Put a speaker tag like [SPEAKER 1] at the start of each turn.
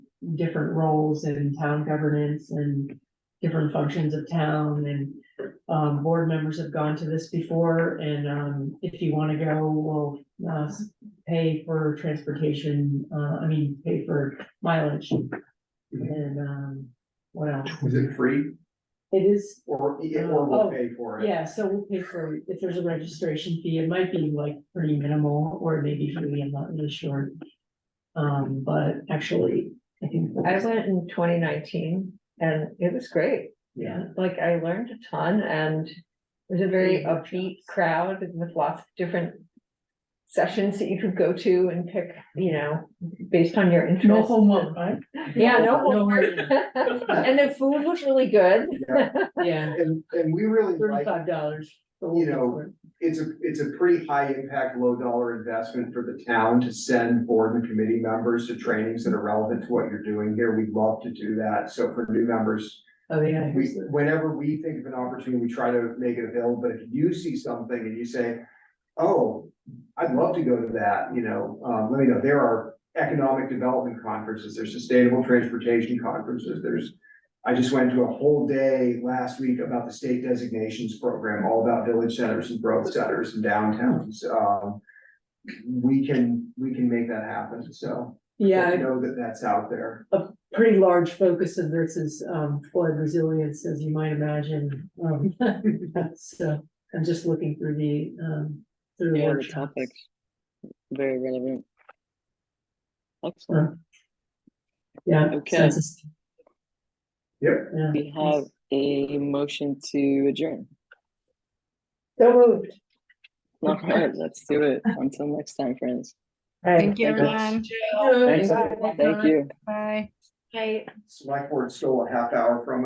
[SPEAKER 1] different roles in town governance and different functions of town and um, board members have gone to this before and, um, if you wanna go, we'll, uh, s- pay for transportation, uh, I mean, pay for mileage. And, um, what else?
[SPEAKER 2] Was it free
[SPEAKER 1] It is
[SPEAKER 2] or,
[SPEAKER 1] yeah,
[SPEAKER 2] or
[SPEAKER 1] or we'll
[SPEAKER 2] we'll
[SPEAKER 1] Oh,
[SPEAKER 2] pay for it?
[SPEAKER 1] Yeah, so we'll pay for, if there's a registration fee, it might be like pretty minimal or maybe free, I'm not really sure. Um, but actually, I think.
[SPEAKER 3] I went in twenty nineteen and it was great.
[SPEAKER 1] Yeah.
[SPEAKER 3] Like I learned a ton and it was a very upbeat crowd and with lots of different sessions that you could go to and pick, you know, based on your
[SPEAKER 4] No
[SPEAKER 3] interest.
[SPEAKER 4] homework, right?
[SPEAKER 3] Yeah, no
[SPEAKER 1] homework.
[SPEAKER 3] homework. And the food was really good.
[SPEAKER 1] Yeah,
[SPEAKER 2] And, and we really like,
[SPEAKER 1] thirty-five dollars.
[SPEAKER 2] You know, it's a, it's a pretty high impact, low dollar investment for the town to send board and committee members to trainings that are relevant to what you're doing here. We'd love to do that. So for new members,
[SPEAKER 1] Oh, yeah.
[SPEAKER 2] we,
[SPEAKER 1] here's the-
[SPEAKER 2] whenever we think of an opportunity, we try to make it available, but if you see something and you say, oh, I'd love to go to that, you know, um, let me know, there are economic development conferences, there's sustainable transportation conferences, there's I just went to a whole day last week about the state designations program, all about village centers and growth centers and downtowns, um we can, we can make that happen, so.
[SPEAKER 1] Yeah,
[SPEAKER 2] Know that that's out there.
[SPEAKER 1] pretty large focus of this is um flood resilience, as you might imagine. Um, so I'm just looking through the um. through the
[SPEAKER 5] Yeah, the
[SPEAKER 1] workshops.
[SPEAKER 5] topics, very relevant. Excellent.
[SPEAKER 1] Uh, Yeah.
[SPEAKER 5] Okay.
[SPEAKER 1] census-
[SPEAKER 2] Yep.
[SPEAKER 1] Yeah.
[SPEAKER 5] We have a motion to adjourn.
[SPEAKER 3] So moved.
[SPEAKER 5] All right, let's do it. Until next time, friends.
[SPEAKER 6] Thank you,
[SPEAKER 5] Thank you.
[SPEAKER 6] everyone.
[SPEAKER 5] Thanks. Thank you.
[SPEAKER 6] Bye.
[SPEAKER 2] Select board stole a half hour from